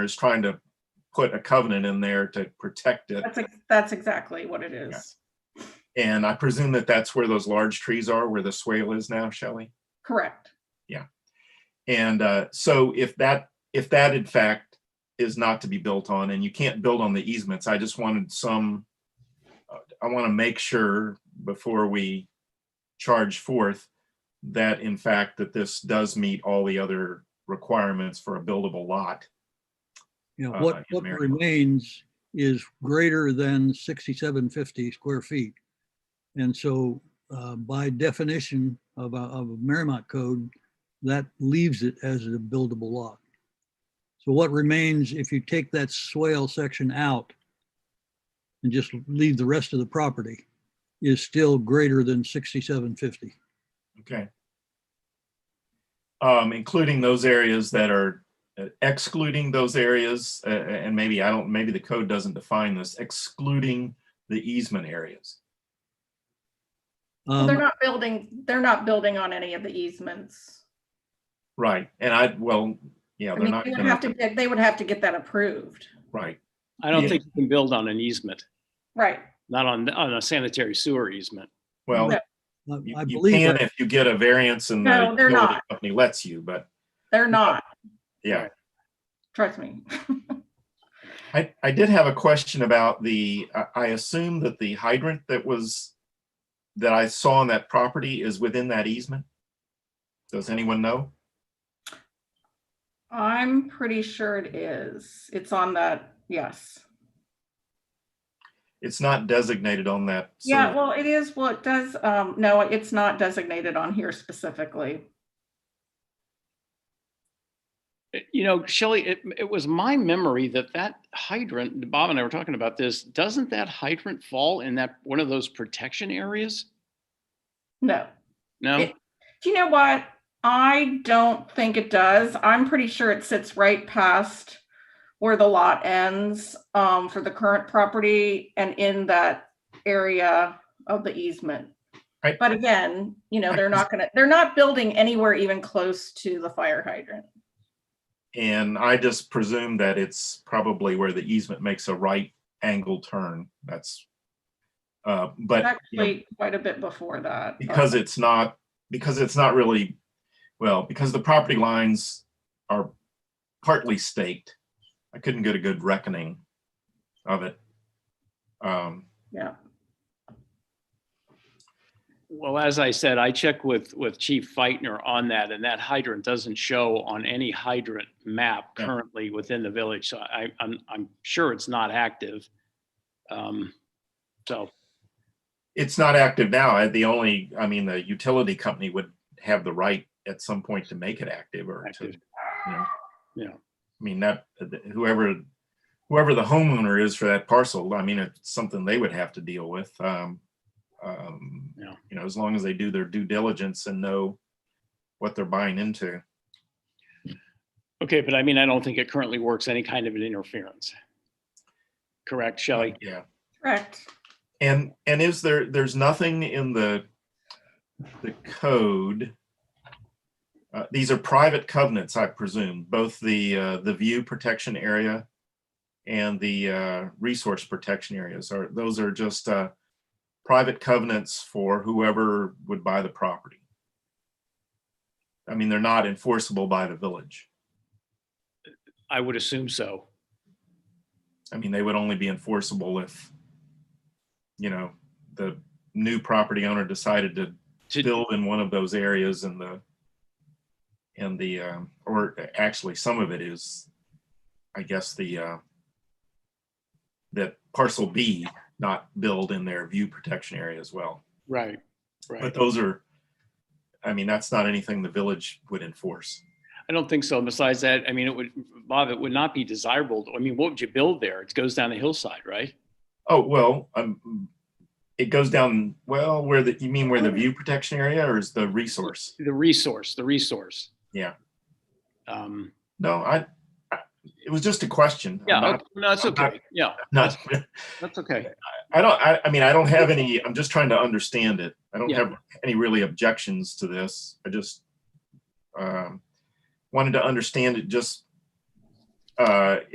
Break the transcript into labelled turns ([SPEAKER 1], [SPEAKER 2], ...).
[SPEAKER 1] is trying to put a covenant in there to protect it.
[SPEAKER 2] That's, ex- that's exactly what it is.
[SPEAKER 1] And I presume that that's where those large trees are, where the swale is now, Shelley?
[SPEAKER 2] Correct.
[SPEAKER 1] And uh, so if that, if that in fact is not to be built on and you can't build on the easements, I just wanted some, uh, I want to make sure before we charge forth that in fact that this does meet all the other requirements for a buildable lot.
[SPEAKER 3] You know,
[SPEAKER 1] Uh,
[SPEAKER 3] what,
[SPEAKER 1] in
[SPEAKER 3] what
[SPEAKER 1] Maryland.
[SPEAKER 3] remains is greater than sixty-seven fifty square feet. And so uh, by definition of, a- of a Merrimack code, that leaves it as a buildable lot. So what remains, if you take that swale section out and just leave the rest of the property, is still greater than sixty-seven fifty.
[SPEAKER 1] Okay. Um, including those areas that are uh, excluding those areas, uh, uh, and maybe I don't, maybe the code doesn't define this, excluding the easement areas.
[SPEAKER 2] Well, They're
[SPEAKER 3] Um,
[SPEAKER 2] not building, they're not building on any of the easements.
[SPEAKER 1] Right, and I, well, yeah, Oh,
[SPEAKER 2] I
[SPEAKER 1] they're
[SPEAKER 2] mean,
[SPEAKER 1] not
[SPEAKER 2] they would
[SPEAKER 1] gonna,
[SPEAKER 2] have to, get- they would have to get that approved.
[SPEAKER 1] right,
[SPEAKER 4] I don't
[SPEAKER 1] Yeah.
[SPEAKER 4] think you can build on an easement,
[SPEAKER 2] Right.
[SPEAKER 4] not on, on a sanitary sewer easement.
[SPEAKER 1] well,
[SPEAKER 2] No,
[SPEAKER 3] Um,
[SPEAKER 1] you
[SPEAKER 3] I I
[SPEAKER 1] you
[SPEAKER 3] believe,
[SPEAKER 1] can
[SPEAKER 3] that-
[SPEAKER 1] if you get a variance and the
[SPEAKER 2] No, they're
[SPEAKER 1] utility
[SPEAKER 2] not.
[SPEAKER 1] company lets you, but,
[SPEAKER 2] They're not.
[SPEAKER 1] yeah.
[SPEAKER 2] Trust me.
[SPEAKER 1] I, I did have a question about the, I, I assume that the hydrant that was, that I saw on that property is within that easement? Does anyone know?
[SPEAKER 2] I'm pretty sure it is. It's on that, yes.
[SPEAKER 1] It's not designated on that.
[SPEAKER 2] Yeah,
[SPEAKER 1] survey.
[SPEAKER 2] well, it is, well, it does, um, no, it's not designated on here specifically.
[SPEAKER 4] It- You know, Shelley, it, it was my memory that that hydrant, Bob and I were talking about this, doesn't that hydrant fall in that, one of those protection areas?
[SPEAKER 2] No.
[SPEAKER 4] No?
[SPEAKER 2] It- Do you know what? I don't think it does. I'm pretty sure it sits right past where the lot ends um, for the current property and in that area of the easement.
[SPEAKER 1] Right.
[SPEAKER 2] But again, you know, they're not gonna, they're not building anywhere even close to the fire hydrant.
[SPEAKER 1] And I just presume that it's probably where the easement makes a right angle turn. That's, uh, but you know,
[SPEAKER 2] Actually, quite a bit before that.
[SPEAKER 1] because it's not, because it's not really, well, because the property lines are partly staked. I couldn't get a good reckoning of it. Um,
[SPEAKER 2] Yeah,
[SPEAKER 4] Well, as I said, I checked with, with Chief Feitner on that, and that hydrant doesn't show on any hydrant map
[SPEAKER 1] Yeah.
[SPEAKER 4] currently within the village, so I, I'm, I'm sure it's not active. Um, So,
[SPEAKER 1] It's not active now. I- The only, I mean, the utility company would have the right at some point to make it active or to
[SPEAKER 4] active,
[SPEAKER 1] Yeah.
[SPEAKER 4] you know.
[SPEAKER 1] I mean, that whoever, whoever the homeowner is for that parcel, I mean, it's something they would have to deal with. Um, um,
[SPEAKER 4] Yeah.
[SPEAKER 1] you know, as long as they do their due diligence and know what they're buying into.
[SPEAKER 4] Okay, but I mean, I don't think it currently works any kind of an interference. Correct, Shelley?
[SPEAKER 1] Yeah.
[SPEAKER 2] correct.
[SPEAKER 1] And, and is there, there's nothing in the, the code. Uh, these are private covenants, I presume, both the, uh, the view protection area and the, uh, resource protection areas are, those are just, uh, private covenants for whoever would buy the property. I mean, they're not enforceable by the village.
[SPEAKER 4] I would assume so.
[SPEAKER 1] I mean, they would only be enforceable if, you know, the new property owner decided to
[SPEAKER 4] To-
[SPEAKER 1] build in one of those areas and the, and the, um, or actually some of it is, I guess, the, uh, that parcel B not build in their view protection area as well.
[SPEAKER 4] Right,
[SPEAKER 1] But
[SPEAKER 4] right.
[SPEAKER 1] those are, I mean, that's not anything the village would enforce.
[SPEAKER 4] I don't think so. And Besides that, I mean, it would, Bob, it would not be desirable. I mean, what would you build there? It goes down a hillside, right?
[SPEAKER 1] Oh, well, um, it goes down, well, where the, you mean where the view protection area or is the resource?
[SPEAKER 4] The resource, the resource.
[SPEAKER 1] Yeah.
[SPEAKER 4] Um,
[SPEAKER 1] No, I, I- it was just a question. I'm
[SPEAKER 4] yeah,
[SPEAKER 1] not-
[SPEAKER 4] okay, no, that's
[SPEAKER 1] I'm not-
[SPEAKER 4] okay. Yeah,
[SPEAKER 1] Not,
[SPEAKER 4] that's okay.
[SPEAKER 1] I don't, I, I mean, I don't have any, I'm just trying to understand it. I don't
[SPEAKER 4] Yeah.
[SPEAKER 1] have any really objections to this. I just um, wanted to understand it just uh,